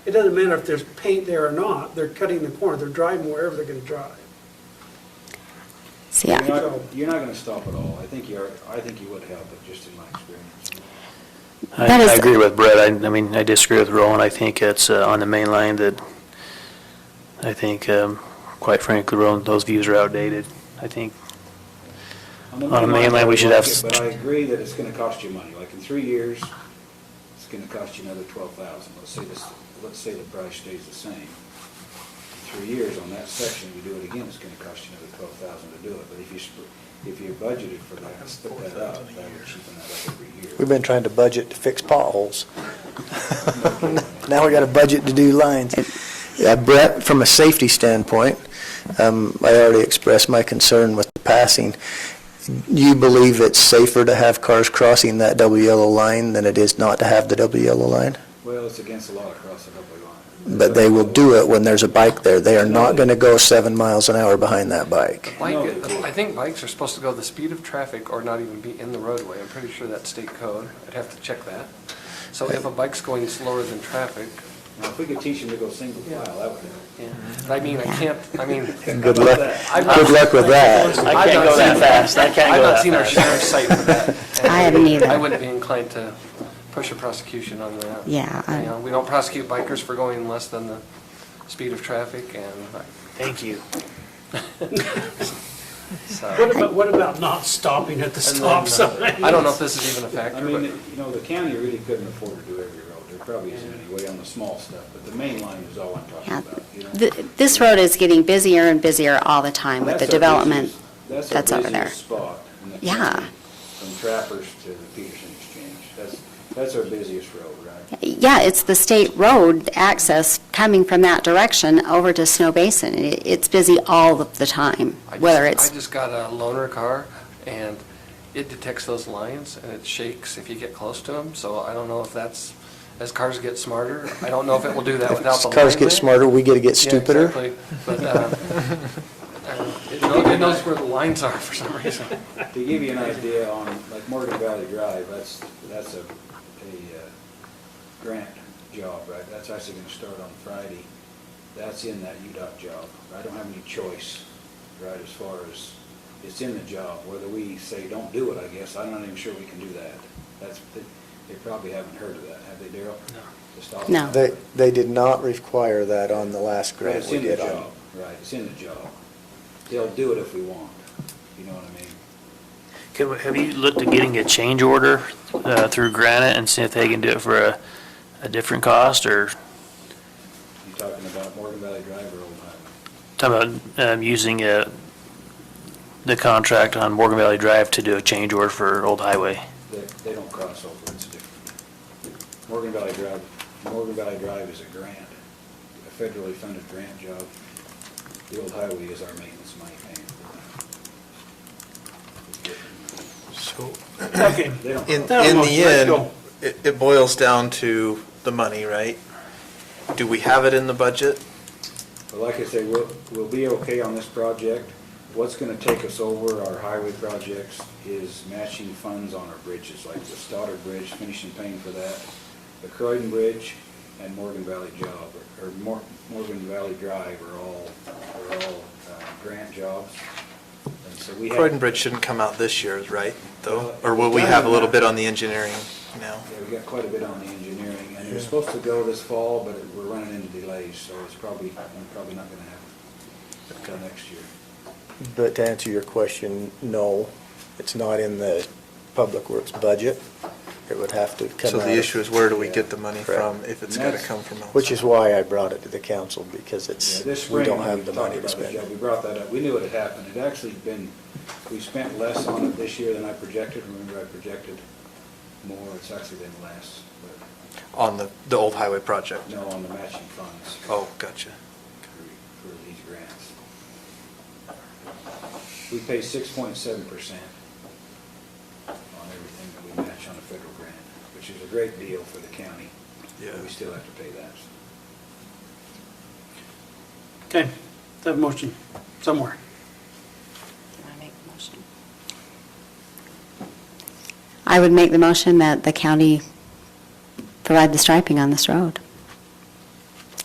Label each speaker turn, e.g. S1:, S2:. S1: It doesn't matter if there's paint there or not, they're cutting the corner, they're driving wherever they're gonna drive.
S2: See, I-
S3: You're not, you're not gonna stop at all. I think you are, I think you would help, but just in my experience.
S4: I
S2: That is-
S4: I agree with Brett. I I mean, I disagree with Roland. I think it's uh, on the main line that, I think, um, quite frankly, Roland, those views are outdated. I think,
S3: the
S4: On the mainland,
S3: I
S4: we should
S3: like
S4: have
S3: it,
S4: s-
S3: But I agree that it's gonna cost you money. Like in three years, it's gonna cost you another twelve thousand. Let's say this, let's say the price stays the same. In Three years on that section, you do it again, it's gonna cost you another twelve thousand to do it. But if you, sp- if you budgeted for that, split that up, that would cheapen that up every year.
S5: We've been trying to budget to fix potholes. Now we got a budget to do lines. Yeah, Brett, from a safety standpoint, um, I already expressed my concern with the passing. You believe it's safer to have cars crossing that double yellow line than it is not to have the double yellow line?
S3: Well, it's against the law to cross the double line.
S5: But they will do it when there's a bike there. They are not going to go seven miles an hour behind that bike.
S6: Bike,
S3: No, they can't.
S6: I think bikes are supposed to go the speed of traffic or not even be in the roadway. I'm pretty sure that's state code. I'd have to check that. So if a bike's going slower than traffic,
S3: Now, if we could teach them to go single file, that would help.
S6: but I mean, I can't, I mean.
S5: Good luck,
S6: I've not-
S5: good luck with that.
S4: I can't go that fast. I can't
S6: I've
S4: go
S6: not
S4: that
S6: seen our
S4: fast.
S6: sheriff's site for that.
S2: I haven't either.
S6: I wouldn't be inclined to push a prosecution on that.
S2: Yeah, I-
S6: You know, we don't prosecute bikers for going less than the speed of traffic and,
S4: Thank you.
S6: so, uh,
S1: What about, what about not stopping at the stop sign?
S6: I don't know if this is even a
S3: I
S6: factor,
S3: mean,
S6: but.
S3: you know, the county really couldn't afford to do every road. There probably isn't any way on the small stuff, but the main line is all I'm talking
S2: yeah.
S3: about, you know?
S2: Th- This road is getting busier and busier all the time with the
S3: That's our
S2: development.
S3: busiest-
S2: that's over there.
S3: That's our busiest spot in the
S2: Yeah.
S3: county, from Trappers to the Peterson Exchange. That's, that's our busiest road, right?
S2: Yeah, it's the state road access coming from that direction over to Snow Basin. It- It's busy all of the time,
S6: I just-
S2: whether it's,
S6: I just got a loaner car, and it detects those lines, and it shakes if you get close to them, so I don't know if that's, as cars get smarter, I don't know if it will do that without the line.
S5: Cars get
S6: there.
S5: smarter, we get to get
S6: Yeah,
S5: stupider.
S6: exactly. But, um, I don't know. it knows- it knows where the lines are for some reason.
S3: To give you an idea on, like Morgan Valley Drive, that's, that's a, a uh, grant job, right? That's actually gonna start on Friday. That's in that UDOT job. I don't have any choice, right, as far as, it's in the job. Whether we say, don't do it, I guess, I'm not even sure we can do that. That's, they- they probably haven't heard of that, have they, Daryl? Just off the
S2: No.
S3: top.
S5: They, they did not require that on the last
S3: But
S5: grant
S3: it's
S5: we
S3: in the
S5: did on.
S3: job, right, it's in the job. They'll do it if we want, you know what I mean?
S4: Can we- Have you looked at getting a change order uh, through Granite and see if they can do it for a, a different cost or
S3: You talking about Morgan Valley Drive or Old Highway?
S4: talking about um, using uh, the contract on Morgan Valley Drive to do a change order for Old Highway?
S3: They, they don't cross over, it's different. Morgan Valley Drive, Morgan Valley Drive is a grant, a federally funded grant job. The old highway is our maintenance money paying for that. It's different.
S7: So,
S1: Okay.
S3: They don't
S7: in,
S3: cross-
S7: in
S1: That almost
S7: the
S1: let
S7: end,
S1: go.
S7: it, it boils down to the money, right? Do we have it in the budget?
S3: But like I say, we'll, we'll be okay on this project. What's gonna take us over our highway projects is matching funds on our bridges, like the Stoddard Bridge, finishing paying for that, the Croydon Bridge, and Morgan Valley Job, or Mor- Morgan Valley Drive are all, are all, uh, grant jobs. And so we have-
S7: Croydon Bridge shouldn't come out this year, right, though?
S3: Well,
S7: Or will we have a little bit on the engineering now?
S3: Yeah, we got quite a bit on the engineering, and it was supposed to go this fall, but we're running into delays, so it's probably, probably not gonna happen until next year.
S5: But to answer your question, no, it's not in the Public Works budget. It would have to come out.
S7: So the
S5: of- uh,
S7: issue is where do we get the money
S5: Correct.
S7: from, if it's
S3: And
S7: gotta
S3: that's-
S7: come from outside?
S5: Which is why I brought it to the council, because
S3: Yeah,
S5: it's,
S3: this
S5: we
S3: spring,
S5: don't
S3: when
S5: have
S3: we
S5: the
S3: talked
S5: money to
S3: about this
S5: spend.
S3: job, We brought that up, we knew it had happened, it actually been, we spent less on it this year than I projected, remember I projected more, it's actually been less,
S7: On the, the old highway project?
S3: but no on the matching funds.
S7: Oh, gotcha.
S3: For for these grants. We pay six point seven percent on everything that we match on a federal grant, which is a great deal for the county. but
S7: Yeah.
S3: We still have to pay that.
S1: Okay, let's have a motion somewhere.
S2: I would make the motion that the county provide the striping on this road.